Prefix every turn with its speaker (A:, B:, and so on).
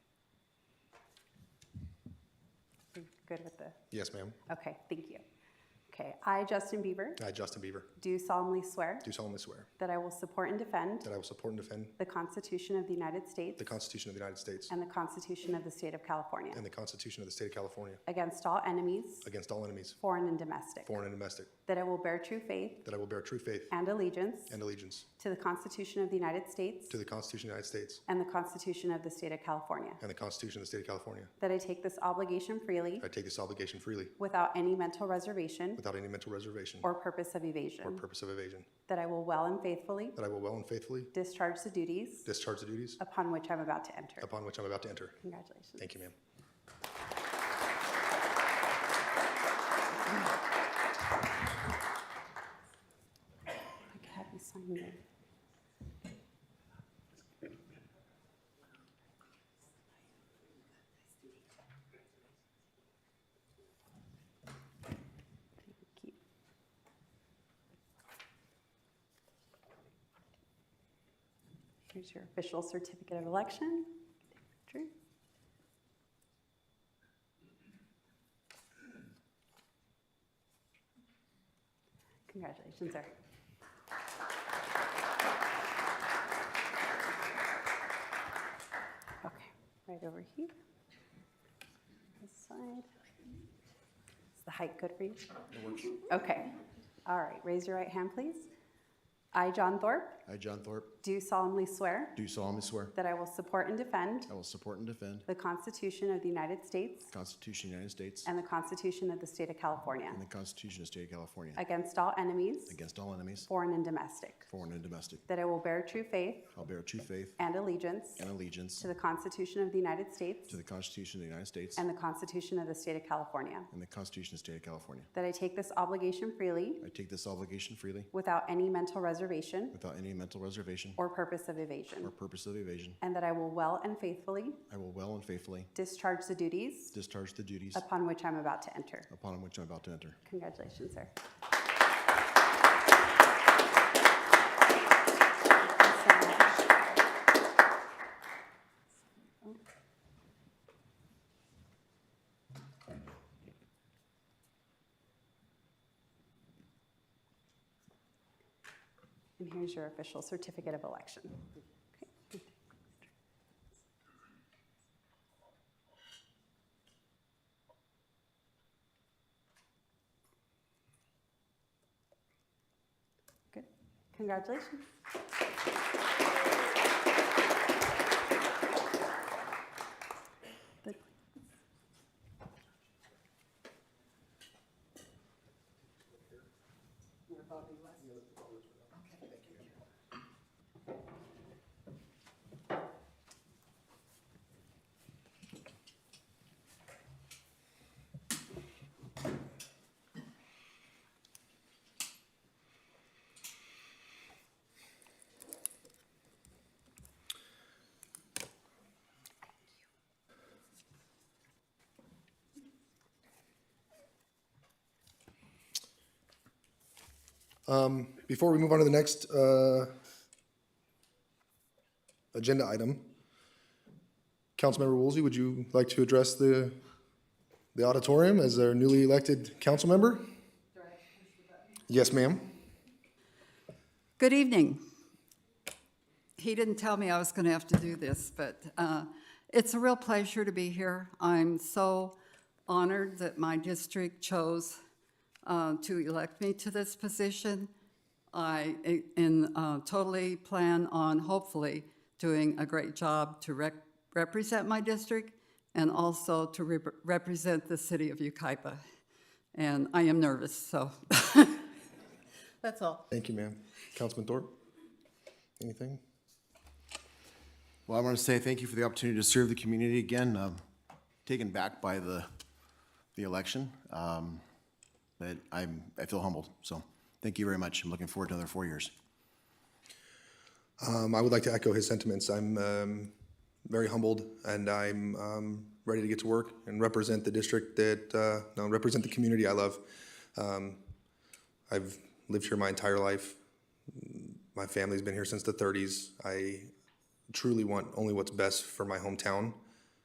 A: Good with the,
B: Yes, ma'am.
A: okay, thank you. Okay, I, Justin Bieber,
B: I, Justin Bieber,
A: do solemnly swear
B: do solemnly swear
A: that I will support and defend
B: that I will support and defend
A: the Constitution of the United States
B: the Constitution of the United States
A: and the Constitution of the State of California
B: and the Constitution of the State of California
A: against all enemies,
B: against all enemies,
A: foreign and domestic,
B: foreign and domestic,
A: that I will bear true faith
B: that I will bear true faith
A: and allegiance
B: and allegiance
A: to the Constitution of the United States
B: to the Constitution of the United States
A: and the Constitution of the State of California,
B: and the Constitution of the State of California.
A: that I take this obligation freely
B: I take this obligation freely
A: without any mental reservation
B: without any mental reservation
A: or purpose of
B: or
A: evasion,
B: purpose of evasion,
A: that I will well and faithfully
B: that I will well and faithfully
A: discharge the duties
B: discharge the duties
A: upon which I'm about to enter.
B: upon which I'm about to enter.
A: Congratulations.
B: Thank you, ma'am.
A: I could have you sign me. Thank you. Here's your official certificate of election. Drew. Congratulations, sir. Okay, right over here. This side. Is the height good for you? Okay. All right, raise your right hand, please. I, John Thorpe,
C: I, John Thorpe,
A: do solemnly swear
C: do solemnly swear
A: that I will support and defend
C: I will support and defend
A: the Constitution of the United States
C: the Constitution of the United States
A: and the Constitution of the State of California
C: and the Constitution of the State of California
A: against all enemies,
C: against all enemies,
A: foreign and domestic,
C: foreign and domestic.
A: that I will bear true faith
C: I'll bear true faith
A: and allegiance
C: and allegiance
A: to the Constitution of the United States
C: to the Constitution of the United States
A: and the Constitution of the State of California,
C: and the Constitution of the State of California.
A: that I take this obligation freely
C: I take this obligation freely
A: without any mental reservation
C: without any mental reservation
A: or purpose of
C: or
A: evasion,
C: purpose of evasion.
A: and that I will well and faithfully
C: I will well and faithfully
A: discharge the duties
C: discharge the duties
A: upon which I'm about to enter.
C: upon which I'm about to enter.
A: Congratulations, sir. And here's your official certificate of election. Okay. Good. Congratulations. Good.
B: Before we move on to the next uh, agenda item, Councilmember Woolsey, would you like to address the, the auditorium as our newly elected council member? Yes, ma'am.
D: Good evening. He didn't tell me I was going to have to do this, but uh, it's a real pleasure to be here. I'm so honored that my district chose uh, to elect me to this position. I eh, and, uh, totally plan on hopefully doing a great job to rec- represent my district and also to rep- represent the city of Ukaipa. And I am nervous, so that's all.
B: Thank you, ma'am. Councilman Thorpe? Anything?
C: Well, I want to say thank you for the opportunity to serve the community again. Um, Taken back by the, the election, um, but I'm, I feel humbled. So thank you very much. I'm looking forward to another four years.
B: Um, I would like to echo his sentiments. I'm um, very humbled, and I'm um, ready to get to work and represent the district that uh, no, represent the community I love. Um, I've lived here my entire life. My family's been here since the 30s. I truly want only what's best for my hometown,